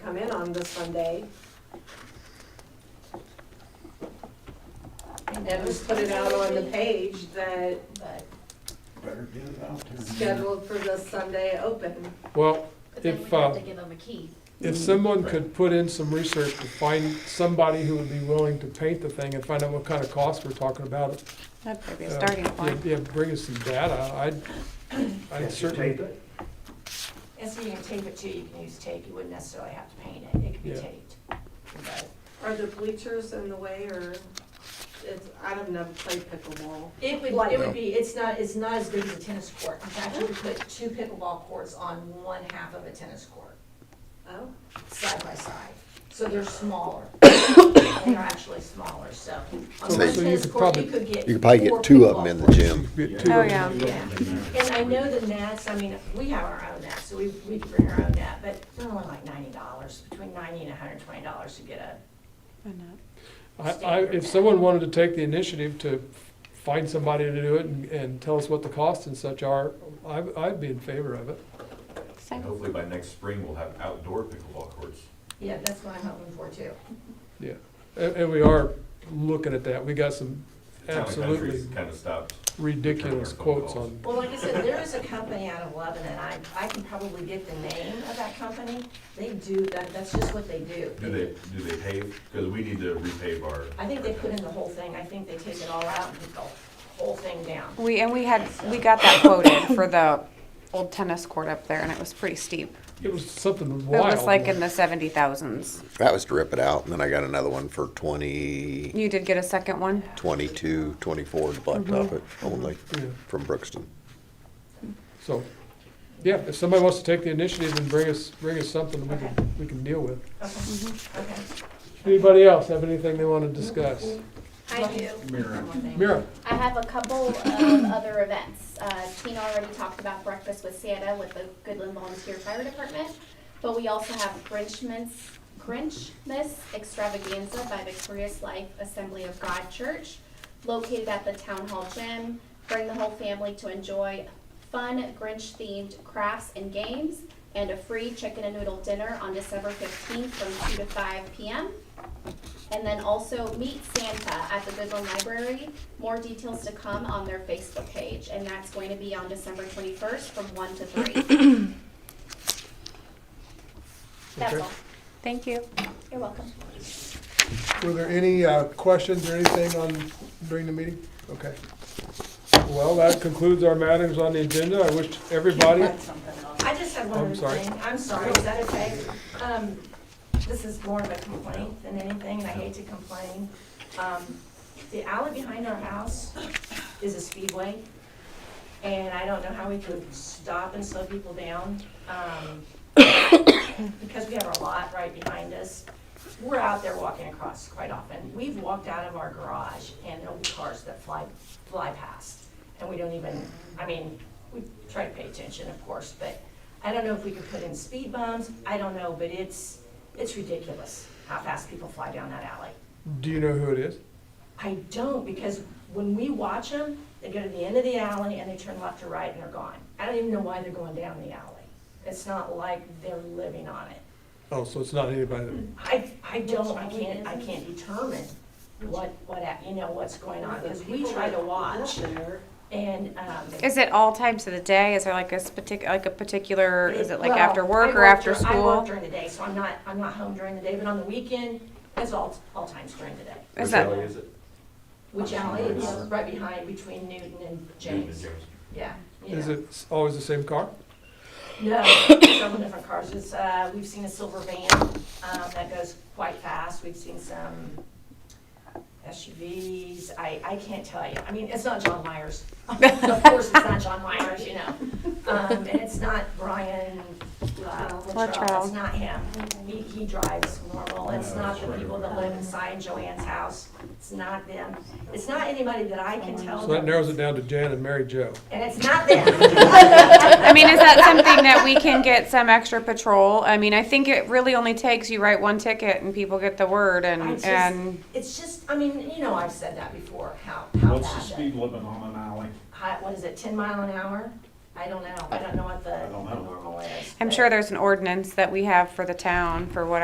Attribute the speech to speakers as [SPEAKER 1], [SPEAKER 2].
[SPEAKER 1] come in on this Sunday. And just put it out on the page that
[SPEAKER 2] But,
[SPEAKER 3] Better get it out there.
[SPEAKER 1] scheduled for this Sunday open.
[SPEAKER 4] Well,
[SPEAKER 2] but then we
[SPEAKER 4] If,
[SPEAKER 2] have
[SPEAKER 4] uh,
[SPEAKER 2] to give them a key.
[SPEAKER 4] if someone could put in some research to find somebody who would be willing to paint the thing and find out what kind of cost we're talking about.
[SPEAKER 5] That'd probably be
[SPEAKER 4] uh,
[SPEAKER 5] a starting point.
[SPEAKER 4] Yeah, yeah, bring us some data, I'd, I'd
[SPEAKER 3] Can't you
[SPEAKER 4] certainly.
[SPEAKER 3] tape it?
[SPEAKER 2] And so you can tape it too, you can use tape, you wouldn't necessarily have to paint it, it could be
[SPEAKER 4] Yeah.
[SPEAKER 2] taped. But
[SPEAKER 1] Are the bleachers in the way or it's, I don't know, play pickleball.
[SPEAKER 2] It would, it would be, it's not, it's not as big as a tennis court, in fact, you could put two pickleball courts on one half of a tennis court,
[SPEAKER 1] Oh,
[SPEAKER 2] side by side. So they're smaller, they're actually smaller, so on
[SPEAKER 4] So-
[SPEAKER 2] one
[SPEAKER 4] so you
[SPEAKER 2] tennis
[SPEAKER 4] could
[SPEAKER 2] court,
[SPEAKER 4] probably-
[SPEAKER 2] you could get.
[SPEAKER 6] You could probably
[SPEAKER 2] four
[SPEAKER 6] get two of them
[SPEAKER 2] pickleball
[SPEAKER 6] in the
[SPEAKER 2] courts.
[SPEAKER 6] gym.
[SPEAKER 4] Get two
[SPEAKER 5] Oh,
[SPEAKER 4] of
[SPEAKER 5] yeah.
[SPEAKER 2] Yeah, and I know the nets, I mean, we have our own net, so we, we can bring our own net, but they're only like ninety dollars, between ninety and hundred and twenty dollars to get a,
[SPEAKER 5] Why not?
[SPEAKER 4] I, I, if someone wanted to take the initiative to find somebody to do it and, and tell us what the costs and such are, I, I'd be in favor of it.
[SPEAKER 7] And
[SPEAKER 5] Exciting.
[SPEAKER 7] hopefully by next spring, we'll have outdoor pickleball courts.
[SPEAKER 2] yeah, that's what I'm hoping for too.
[SPEAKER 4] Yeah, and, and we are looking at that. We got some
[SPEAKER 7] Town and country's
[SPEAKER 4] absolutely
[SPEAKER 7] kind of stopped.
[SPEAKER 4] ridiculous quotes on
[SPEAKER 2] Well, like I said, there is a company out of Lebanon, I, I can probably get the name of that company. They do, that, that's just what they do.
[SPEAKER 7] Do they, do they pave? Because we need to repave our.
[SPEAKER 2] I think they put in the whole thing, I think they take it all out and put the whole thing down.
[SPEAKER 5] We, and we had, we got that quoted for the old tennis court up there and it was pretty steep.
[SPEAKER 4] It was something
[SPEAKER 5] It
[SPEAKER 4] wild.
[SPEAKER 5] was like in the seventy thousands.
[SPEAKER 6] That was to rip it out, and then I got another one for twenty,
[SPEAKER 5] You did get a second one?
[SPEAKER 6] twenty-two, twenty-four to blacktop it only
[SPEAKER 4] Yeah.
[SPEAKER 6] from Brookston.
[SPEAKER 4] So, yeah, if somebody wants to take the initiative and bring us, bring us something we
[SPEAKER 2] Okay.
[SPEAKER 4] can, we can deal with.
[SPEAKER 2] Okay, okay.
[SPEAKER 4] Anybody else have anything they want to discuss?
[SPEAKER 8] I do.
[SPEAKER 4] Mira?
[SPEAKER 8] I have a couple of other events. Uh, Tina already talked about Breakfast with Santa with the Goodland Volunteer Fire Department, but we also have Grinchmas, Grinchmas Extravaganza by Victorious Life Assembly of God Church, located at the Town Hall Gym. Bring the whole family to enjoy fun Grinch-themed crafts and games, and a free chicken and noodle dinner on December fifteenth from two to five p.m. And then also Meet Santa at the Goodland Library. More details to come on their Facebook page, and that's going to be on December twenty-first from one to three. That's
[SPEAKER 4] Okay.
[SPEAKER 8] all.
[SPEAKER 5] Thank you.
[SPEAKER 8] You're welcome.
[SPEAKER 4] Were there any uh, questions or anything on, during the meeting? Okay. Well, that concludes our matters on the agenda. I wish everybody,
[SPEAKER 2] I just have
[SPEAKER 4] I'm
[SPEAKER 2] one other
[SPEAKER 4] sorry.
[SPEAKER 2] thing, I'm sorry, is that okay? Um, this is more of a complaint than anything, and I hate to complain. Um, the alley behind our house is a speedway, and I don't know how we could stop and slow people down. Um, because we have our lot right behind us, we're out there walking across quite often. We've walked out of our garage and there'll be cars that fly, fly past. And we don't even, I mean, we try to pay attention, of course, but I don't know if we could put in speed bumps. I don't know, but it's, it's ridiculous how fast people fly down that alley.
[SPEAKER 4] do you know who it is?
[SPEAKER 2] I don't, because when we watch them, they go to the end of the alley and they turn left or right and they're gone. I don't even know why they're going down the alley. It's not like they're living on it.
[SPEAKER 4] Oh, so it's not anybody that,
[SPEAKER 2] I, I don't, I can't, I can't determine what, what, a- you know, what's going on, because we try to watch, and, um.
[SPEAKER 5] Is it all times of the day? Is there like a partic, like a particular, is it like
[SPEAKER 2] well,
[SPEAKER 5] after
[SPEAKER 2] I
[SPEAKER 5] work or
[SPEAKER 2] work
[SPEAKER 5] after
[SPEAKER 2] dur- I work
[SPEAKER 5] school?
[SPEAKER 2] during the day, so I'm not, I'm not home during the day, but on the weekend, it's all, all times during the day.
[SPEAKER 5] Is
[SPEAKER 7] Which
[SPEAKER 5] that-
[SPEAKER 7] alley is it?
[SPEAKER 2] Which alley is right behind, between Newton and James,
[SPEAKER 7] Newton and
[SPEAKER 2] yeah. you
[SPEAKER 4] is
[SPEAKER 2] know.
[SPEAKER 4] it s- always the same car?
[SPEAKER 2] No, several different cars, it's, uh, we've seen a silver van, um, that goes quite fast, we've seen some SUVs, I, I can't tell you, I mean, it's not John Myers. Of course, it's not John Myers, you know, um, and it's not Brian, uh, Latrell, it's
[SPEAKER 5] Latrell.
[SPEAKER 2] not him. He, he drives normal, it's not the people that live inside Joanne's house, it's not them, it's not anybody that I can tell.
[SPEAKER 4] So that narrows it down to Jan and Mary Jo.
[SPEAKER 2] And it's not them,
[SPEAKER 5] I mean, is that something that we can get some extra patrol? I mean, I think it really only takes, you write one ticket and people get the word
[SPEAKER 2] I
[SPEAKER 5] and,
[SPEAKER 2] just-
[SPEAKER 5] and
[SPEAKER 2] it's just, I mean, you know, I've said that before, how, how bad
[SPEAKER 3] What's the
[SPEAKER 2] that-
[SPEAKER 3] speed limit on an alley?
[SPEAKER 2] high, what is it, ten mile an hour? I don't know, I don't know what the
[SPEAKER 3] don't
[SPEAKER 2] the
[SPEAKER 3] know.
[SPEAKER 2] normal is.
[SPEAKER 5] I'm
[SPEAKER 2] but-
[SPEAKER 5] sure there's an ordinance that we have for the town for what